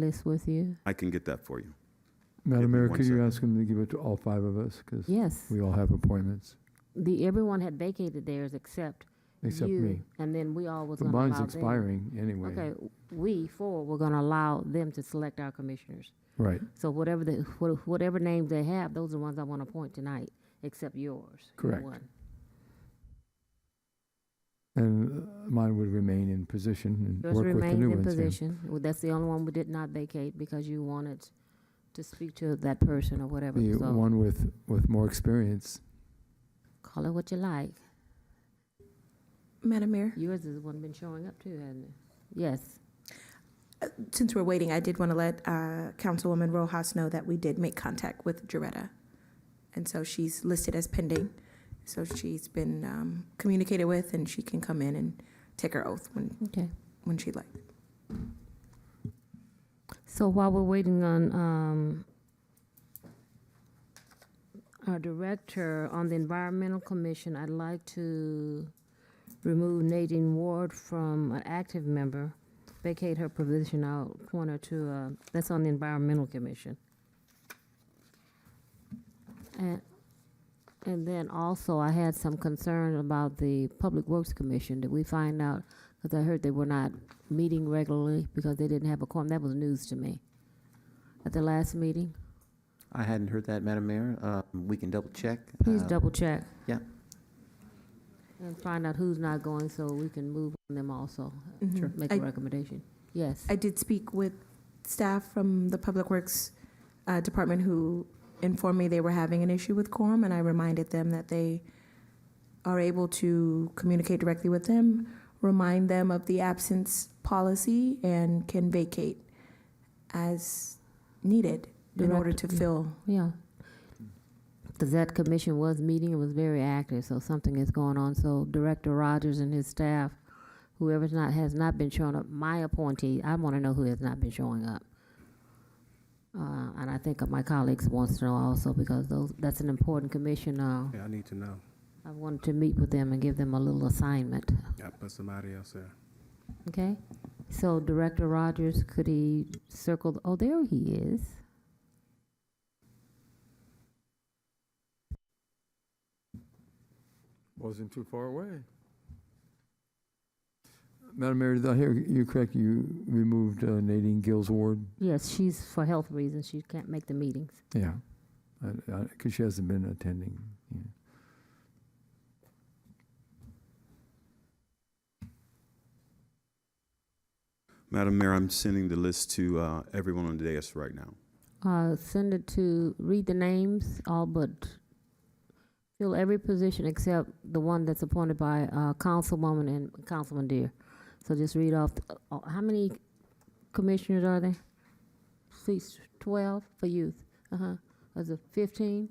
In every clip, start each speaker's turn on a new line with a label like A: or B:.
A: list with you?
B: I can get that for you. Give
C: Madam
B: me
C: Mayor,
B: one
C: could you
B: second.
C: ask him to give it to all five of us? Because
A: Yes.
C: we all have appointments,
A: The, everyone had vacated theirs except
C: except
A: you,
C: me.
A: And then we all was
C: But
A: gonna allow them.
C: mine's expiring anyway.
A: Okay, we four were gonna allow them to select our commissioners.
C: Right,
A: So whatever the, wha- whatever names they have, those are the ones I wanna appoint tonight, except yours. your
C: Correct.
A: one.
C: and uh, mine would remain in position and
A: Yours
C: work with the
A: remains
C: new
A: in
C: ones. then.
A: position. Well, That's the only one we did not vacate because you wanted to speak to that person or whatever.
C: The
A: So
C: one with, with more experience.
A: call it what you like.
D: Madam Mayor,
A: Yours is the one been showing up too, hasn't it? Yes.
D: since we're waiting, I did want to let uh, Councilwoman Rojas know that we did make contact with Jaretta. And so she's listed as pending. So she's been um, communicated with and she can come in and take her oath when,
A: Okay.
D: when she'd like.
A: So while we're waiting on um, our director on the Environmental Commission, I'd like to remove Nadine Ward from an active member, vacate her provision, I'll point her to, uh, that's on the Environmental Commission. And, and then also, I had some concern about the Public Works Commission. Did we find out, because I heard they were not meeting regularly because they didn't have a quorum. That was news to me. At the last meeting,
E: I hadn't heard that, Madam Mayor. Uh, We can double check.
A: please
E: Uh,
A: double check.
E: yeah.
A: And find out who's not going so we can move on them also.
D: Sure.
A: Make
D: I-
A: a recommendation. Yes.
D: I did speak with staff from the Public Works uh, Department who informed me they were having an issue with quorum, and I reminded them that they are able to communicate directly with them, remind them of the absence policy, and can vacate as needed in order to
A: Direct-
D: fill.
A: Yeah. Because that commission was meeting, it was very active, so something is going on. So Director Rogers and his staff, whoever's not, has not been showing up, my appointee, I want to know who has not been showing up. Uh, And I think my colleagues wants to know also, because those, that's an important commission. uh,
F: Yeah, I need to know.
A: I wanted to meet with them and give them a little assignment,
F: Yeah, put somebody else there.
A: okay? So Director Rogers, could he circle, oh, there he is.
C: Wasn't too far away. Madam Mayor, did I hear you correct? You removed uh, Nadine Gill's ward?
A: Yes, she's, for health reasons, she can't make the meetings.
C: Yeah, because she hasn't been attending. yeah.
B: Madam Mayor, I'm sending the list to uh, everyone on the dais right now.
A: Uh, send it to, read the names, all but, fill every position except the one that's appointed by, uh, Councilwoman and Councilman Deere. So just read off, the- uh, how many commissioners are there? Seats twelve for youth, uh-huh, is it fifteen?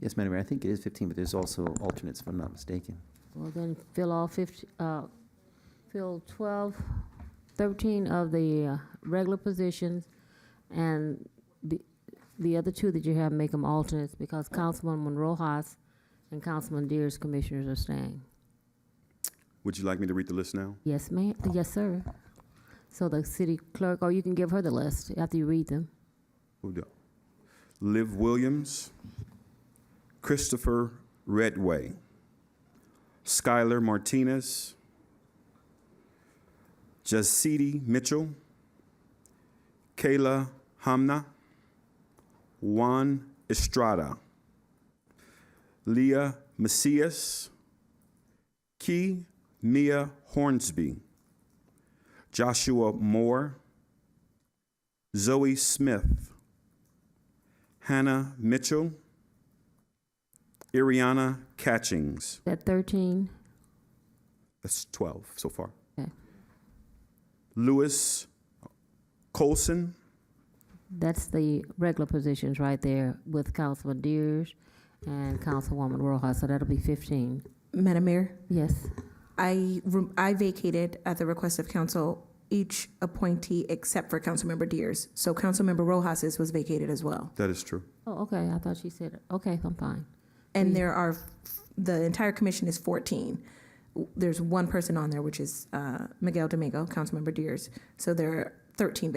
E: Yes, Madam Mayor, I think it is 15, but there's also alternates, if I'm not mistaken.
A: Well, then fill all fifty, uh, fill twelve, thirteen of the uh, regular positions, and the, the other two that you have, make them alternates, because Councilwoman Rojas and Councilman Deere's commissioners are staying.
B: Would you like me to read the list now?
A: Yes, ma'am, yes, sir. So the city clerk, or you can give her the list after you read them.
B: Who do- Liv Williams, Christopher Redway, Skylar Martinez, Jasidi Mitchell, Kayla Hamna, Juan Estrada, Leah Macias, Key Mia Hornsby, Joshua Moore, Zoe Smith, Hannah Mitchell, Iriana Catchings.
A: That thirteen,
B: That's 12 so far.
A: Okay.
B: Lewis Colson,
A: that's the regular positions right there with Councilman Deere's and Councilwoman Rojas, so that'll be fifteen.
D: Madam Mayor?
A: Yes.
D: I, re- I vacated at the request of council each appointee except for Councilmember Deers. So Councilmember Rojas's was vacated as well.
B: that is true.
A: Oh, okay, I thought she said, okay, I'm fine.
D: And there are, the entire commission is 14. There's one person on there, which is uh, Miguel Domingo, Councilmember Deers. So there are 13